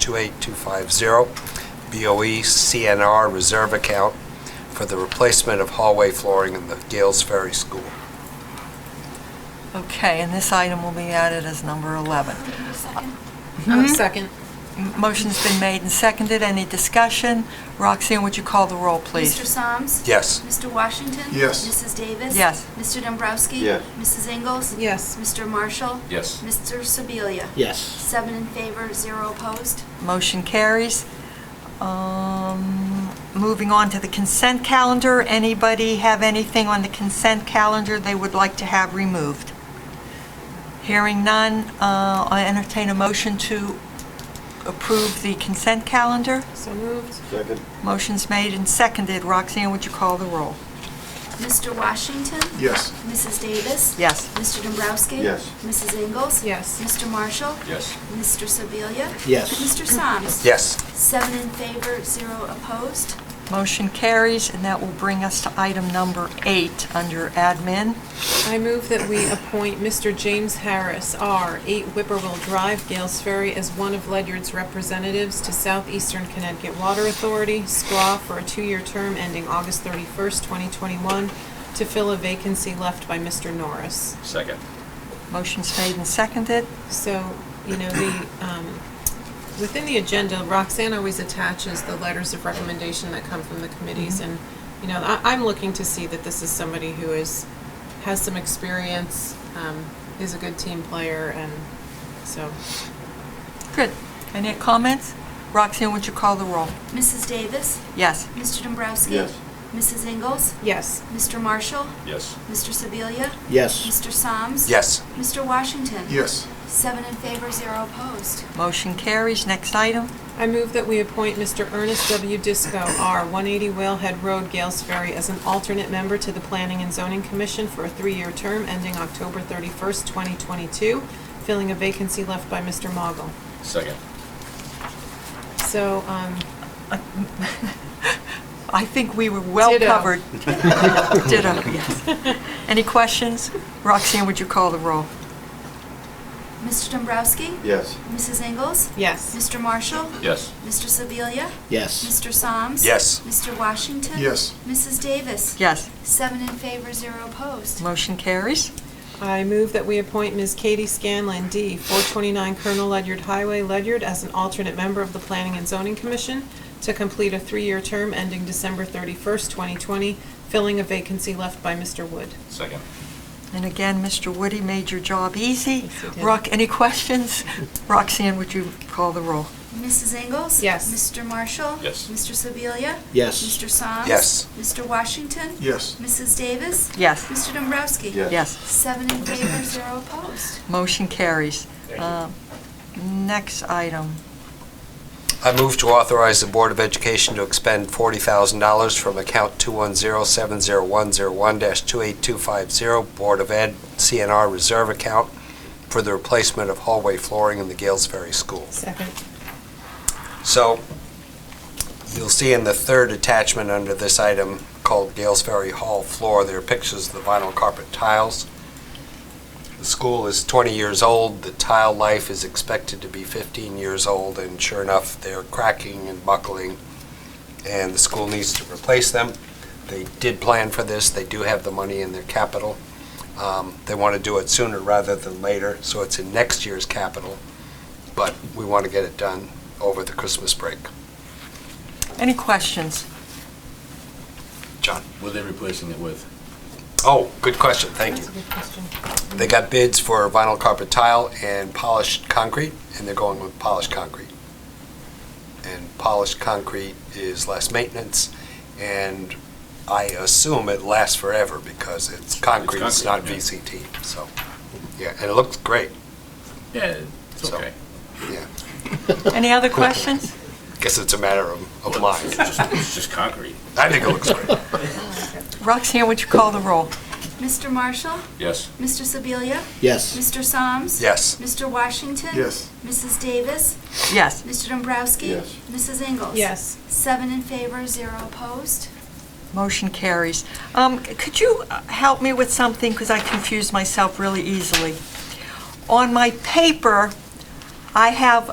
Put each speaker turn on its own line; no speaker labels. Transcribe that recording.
70101-28250, BOE CNR Reserve Account for the replacement of hallway flooring in the Gales Ferry School.
Okay, and this item will be added as number 11. Uh, Mm-hmm.
Second.
M- Motion's been made and seconded. Any discussion? Roxanne, would you call the roll,
Mr.
please?
Soms?
Yes.
Mr. Washington?
Yes.
Mrs. Davis?
Yes.
Mr. Dombrowski?
Yes.
Mrs. Ingles?
Yes.
Mr. Marshall?
Yes.
Mr. Sebelia?
Yes.
Seven in favor, zero opposed.
Motion carries. Um, Moving on to the consent calendar. Anybody have anything on the consent calendar they would like to have removed? Hearing none, uh, I entertain a motion to approve the consent calendar.
So moved.
Second.
Motion's made and seconded. Roxanne, would you call the roll?
Mr. Washington?
Yes.
Mrs. Davis?
Yes.
Mr. Dombrowski?
Yes.
Mrs. Ingles?
Yes.
Mr. Marshall?
Yes.
Mr. Sebelia?
Yes.
Mr. Soms?
Yes.
Seven in favor, zero opposed.
Motion carries, and that will bring us to item number eight under admin.
I move that we appoint Mr. James Harris, R., 8 Whippoorwill Drive, Gales Ferry, as one of Ledyard's representatives to Southeastern Connecticut Water Authority, SCWA, for a two-year term ending August 31st, 2021, to fill a vacancy left by Mr. Norris.
Second.
Motion's made and seconded.
So, you know, the, um, within the agenda, Roxanne always attaches the letters of recommendation that come from the committees, and, you know, I, I'm looking to see that this is somebody who is, has some experience, um, is a good team player, and so,
Good. Any comments? Roxanne, would you call the roll?
Mrs. Davis?
Yes.
Mr. Dombrowski?
Yes.
Mrs. Ingles?
yes.
Mr. Marshall?
Yes.
Mr. Sebelia?
Yes.
Mr. Soms?
Yes.
Mr. Washington?
Yes.
Seven in favor, zero opposed.
Motion carries. Next item.
I move that we appoint Mr. Ernest W. Disco, R., 180 Whalehead Road, Gales Ferry, as an alternate member to the Planning and Zoning Commission for a three-year term ending October 31st, 2022, filling a vacancy left by Mr. Mogul.
Second.
So, um,
I think we were well
Ditto.
covered. Ditto, yes. Any questions? Roxanne, would you call the roll?
Mr. Dombrowski?
Yes.
Mrs. Ingles?
yes.
Mr. Marshall?
Yes.
Mr. Sebelia?
Yes.
Mr. Soms?
Yes.
Mr. Washington?
Yes.
Mrs. Davis?
Yes.
Seven in favor, zero opposed.
Motion carries.
I move that we appoint Ms. Katie Scanlon, D., 429 Colonel Ledyard Highway, Ledyard, as an alternate member of the Planning and Zoning Commission to complete a three-year term ending December 31st, 2020, filling a vacancy left by Mr. Wood.
Second.
And again, Mr. Woody made your job easy.
Yes, he did.
Rock, any questions? Roxanne, would you call the roll?
Mrs. Ingles?
Yes.
Mr. Marshall?
Yes.
Mr. Sebelia?
Yes.
Mr. Soms?
Yes.
Mr. Washington?
Yes.
Mrs. Davis?
Yes.
Mr. Dombrowski?
Yes.
Yes.
Seven in favor, zero opposed.
Motion carries. Uh, Next item.
I move to authorize the Board of Education to expend $40,000 from account 210-70101-28250 Board of Ed CNR Reserve Account for the replacement of hallway flooring in the Gales Ferry School.
Second.
So, you'll see in the third attachment under this item called Gales Ferry Hall floor, there are pictures of the vinyl carpet tiles. The school is 20 years old, the tile life is expected to be 15 years old, and sure enough, they're cracking and buckling, and the school needs to replace them. They did plan for this, they do have the money in their capital. Um, They want to do it sooner rather than later, so it's in next year's capital, but we want to get it done over the Christmas break.
Any questions?
John?
What are they replacing it with?
Oh, good question, thank you.
That's a good question.
They got bids for vinyl carpet tile and polished concrete, and they're going with polished concrete. And polished concrete is less maintenance, and I assume it lasts forever because it's concrete, it's not
concrete, yeah.
VCT, so. Yeah, and it looks great,
Yeah, it's
So-
okay.
yeah.
Any other questions?
Guess it's a matter of, of
Well,
mind.
It's just- it's just concrete.
I think it looks great.
Roxanne, would you call the roll?
Mr. Marshall?
Yes.
Mr. Sebelia?
Yes.
Mr. Soms?
Yes.
Mr. Washington?
Yes.
Mrs. Davis?
Yes.
Mr. Dombrowski?
Yes.
Mrs. Ingles?
Yes.
Seven in favor, zero opposed.
Motion carries. Um, c- Could you uh, help me with something, because I confuse myself really easily? On my paper, I have